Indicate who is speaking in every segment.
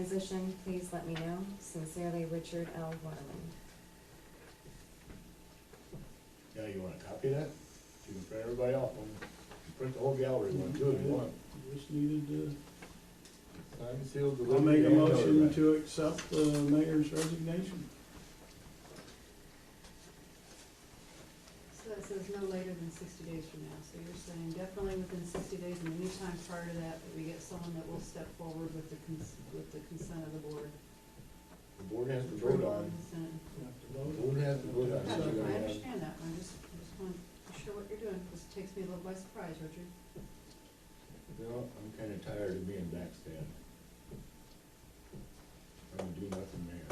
Speaker 1: transition, please let me know. Sincerely, Richard L. Waterman.
Speaker 2: Yeah, you wanna copy that? You can print everybody off, one. print the whole gallery one too if you want.
Speaker 3: Just needed to,
Speaker 2: Signed, sealed, delivered.
Speaker 3: I'll make a
Speaker 2: and notarized.
Speaker 3: motion to accept the mayor's resignation.
Speaker 4: So that says no later than sixty days from now, so you're saying definitely within sixty days and any time prior to that, that we get someone that will step forward with the cons- with the consent of the board.
Speaker 2: The board has to vote on,
Speaker 4: Consent.
Speaker 3: You have to
Speaker 2: the
Speaker 3: vote.
Speaker 2: board has to vote on.
Speaker 4: Yeah,
Speaker 2: it. You're
Speaker 4: I
Speaker 2: gonna have-
Speaker 4: understand that, I just, I just want to be sure what you're doing, this takes me a little by surprise, Richard.
Speaker 2: You know, I'm kinda tired of being backstabbed. I'm gonna do nothing there.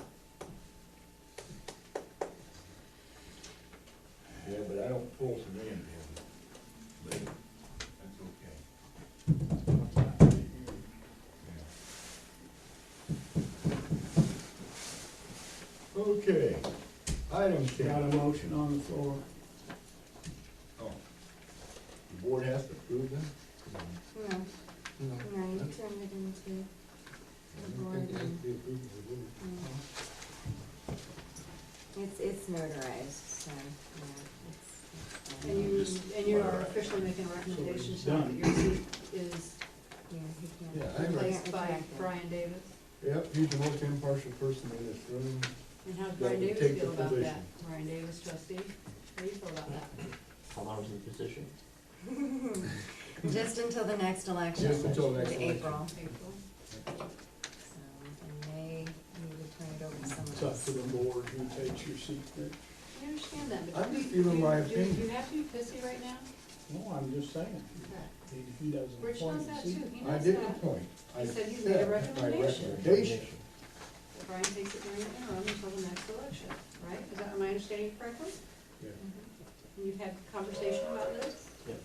Speaker 2: Yeah, but I don't pull from in, but that's okay. Yeah. Okay, item
Speaker 3: Got
Speaker 2: ten.
Speaker 3: a motion on the floor.
Speaker 2: Oh. The board has to approve them?
Speaker 1: No, no, you turned it into,
Speaker 2: I don't think it has to be approved by the board.
Speaker 1: no. It's, it's notarized, so, yeah, it's, it's,
Speaker 4: And
Speaker 1: fine.
Speaker 4: you,
Speaker 2: Just-
Speaker 4: and you are officially making a recommendation
Speaker 3: it's
Speaker 4: tonight that your seat is
Speaker 1: yeah, he
Speaker 2: Yeah,
Speaker 1: can't.
Speaker 2: I
Speaker 1: he
Speaker 2: read-
Speaker 4: replaced
Speaker 1: can't
Speaker 4: by
Speaker 1: retract it.
Speaker 4: Brian Davis.
Speaker 2: Yep, he's the most impartial person in this room.
Speaker 4: And how does
Speaker 2: That
Speaker 4: Brian
Speaker 2: would
Speaker 4: Davis
Speaker 2: take the
Speaker 4: feel about that?
Speaker 2: position.
Speaker 4: Brian Davis trustee, how do you feel about that?
Speaker 5: How long is the position?
Speaker 1: Just until the next election.
Speaker 2: Just until next
Speaker 1: to
Speaker 2: election.
Speaker 1: April,
Speaker 4: April?
Speaker 1: so, and they need to turn it over to
Speaker 3: It's
Speaker 1: someone
Speaker 3: up to
Speaker 1: else.
Speaker 3: the board who takes your seat there.
Speaker 4: I understand that, but.
Speaker 2: I'm just
Speaker 4: do
Speaker 2: giving
Speaker 4: you-
Speaker 2: my
Speaker 4: do- Do
Speaker 2: opinion.
Speaker 4: you have to be pissy right now?
Speaker 3: No, I'm just saying, if he doesn't
Speaker 4: Rich knows
Speaker 3: appoint a
Speaker 4: that
Speaker 3: seat.
Speaker 4: too, he
Speaker 2: I
Speaker 4: knows
Speaker 2: did the
Speaker 4: that.
Speaker 2: point. I
Speaker 4: He said he's made a
Speaker 2: said my
Speaker 4: recommendation.
Speaker 2: recommendation.
Speaker 4: That Brian takes it during the interim until the next election, right? Is that, am I understanding you correctly?
Speaker 2: Yeah.
Speaker 4: And you've had conversation about this,
Speaker 5: Yep,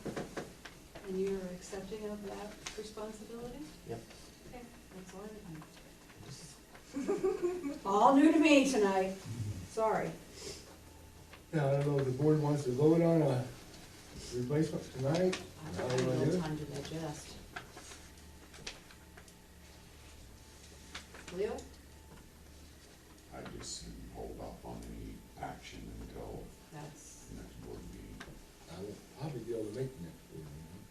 Speaker 4: and you're accepting of that responsibility?
Speaker 5: yep.
Speaker 4: Okay, that's all I know. All new to me tonight, sorry.
Speaker 2: Now, I don't know if the board wants to vote on a replacement tonight.
Speaker 4: I
Speaker 2: Now,
Speaker 4: have
Speaker 2: you
Speaker 4: a
Speaker 2: wanna do
Speaker 4: little
Speaker 2: it?
Speaker 4: time to digest. Leo?
Speaker 6: I just say we hold off on any action until
Speaker 4: That's,
Speaker 6: the next board meeting.
Speaker 2: I will probably be able to make the next board meeting.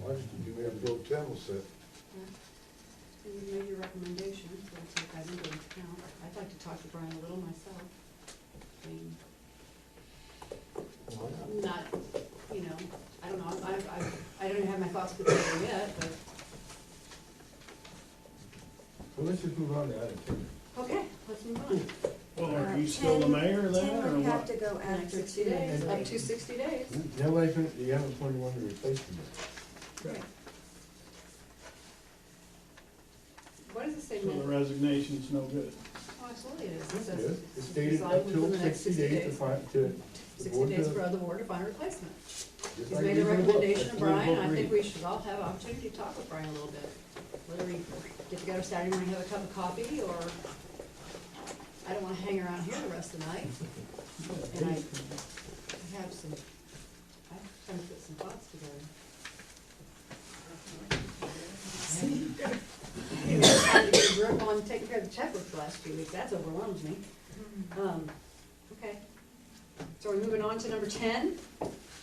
Speaker 2: Why don't you do Mayor Pro Tem will sit?
Speaker 4: yeah. And you made your recommendation, so I'll take that into account. I'd like to talk to Brian a little myself. I mean,
Speaker 5: Why not?
Speaker 4: not, you know, I don't know, I, I, I don't have my thoughts put together yet, but,
Speaker 2: Well, let's just move on to item ten.
Speaker 4: okay, let's move on.
Speaker 3: Well, are
Speaker 1: Uh,
Speaker 3: you still the
Speaker 1: 10
Speaker 3: mayor then,
Speaker 1: Tim
Speaker 3: or
Speaker 1: would have
Speaker 3: what?
Speaker 1: to go
Speaker 4: Like
Speaker 1: after two
Speaker 4: 60 days,
Speaker 1: days.
Speaker 4: up to sixty days.
Speaker 2: Nobody's gonna, you haven't appointed one to replace them.
Speaker 4: Right. What does it say,
Speaker 3: So the
Speaker 4: Ned?
Speaker 3: resignation's no good.
Speaker 4: Oh, absolutely it is. It
Speaker 2: Yes,
Speaker 4: says
Speaker 2: It's stated
Speaker 4: resign
Speaker 2: up till
Speaker 4: within the next
Speaker 2: sixty days to find, to. the
Speaker 4: Sixty
Speaker 2: board
Speaker 4: days
Speaker 2: to-
Speaker 4: for the board to find a replacement.
Speaker 2: just
Speaker 4: He's
Speaker 2: like
Speaker 4: made
Speaker 2: it
Speaker 4: a
Speaker 2: is in the book. That's
Speaker 4: recommendation to
Speaker 2: the way the
Speaker 4: Brian,
Speaker 2: book
Speaker 4: I think
Speaker 2: reads.
Speaker 4: we should all have an opportunity to talk with Brian a little bit. Whether we get together Saturday morning, have a cup of coffee, or I don't wanna hang around here the rest of the night. And I I have some, I'm trying to put some thoughts together. I had to get a grip on taking care of the checkbook the last few weeks, that's overwhelmed me.
Speaker 1: Hmm.
Speaker 4: Um, okay. So we're moving on to number ten,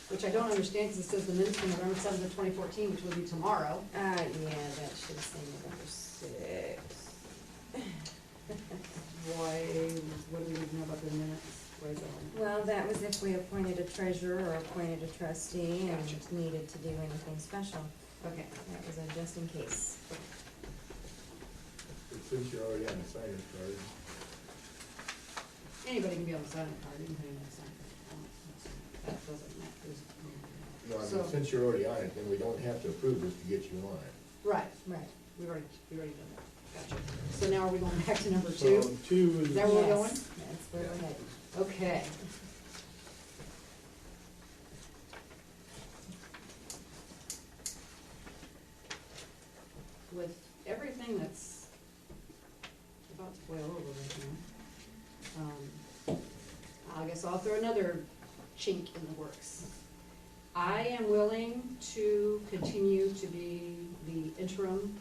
Speaker 4: which I don't understand, because it says the minutes from November seventh of twenty fourteen, which will be tomorrow.
Speaker 1: Uh, yeah, that should say November six.
Speaker 4: Why, what do we need to know about the minutes? Where's that one?
Speaker 1: Well, that was if we appointed a treasurer or appointed a trustee and needed to do anything special.
Speaker 4: Okay,
Speaker 1: That was a just in case.
Speaker 2: Since you're already on the signer's card.
Speaker 4: anybody can be on the signing card, you can put it on the signing card. That doesn't matter.
Speaker 2: No, I
Speaker 4: So-
Speaker 2: mean, since you're already on it, then we don't have to approve this to get you on it.
Speaker 4: Right,
Speaker 1: Right.
Speaker 4: we've already, we've already done that, gotcha. So now are we going back to number
Speaker 3: So
Speaker 4: two?
Speaker 3: two
Speaker 4: Is
Speaker 3: is,
Speaker 4: that where we're
Speaker 1: Yes,
Speaker 4: going?
Speaker 1: That's where we're headed.
Speaker 4: Okay. With everything that's about to boil over right now, um, I guess I'll throw another chink in the works. I am willing to continue to be the interim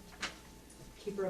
Speaker 4: keeper of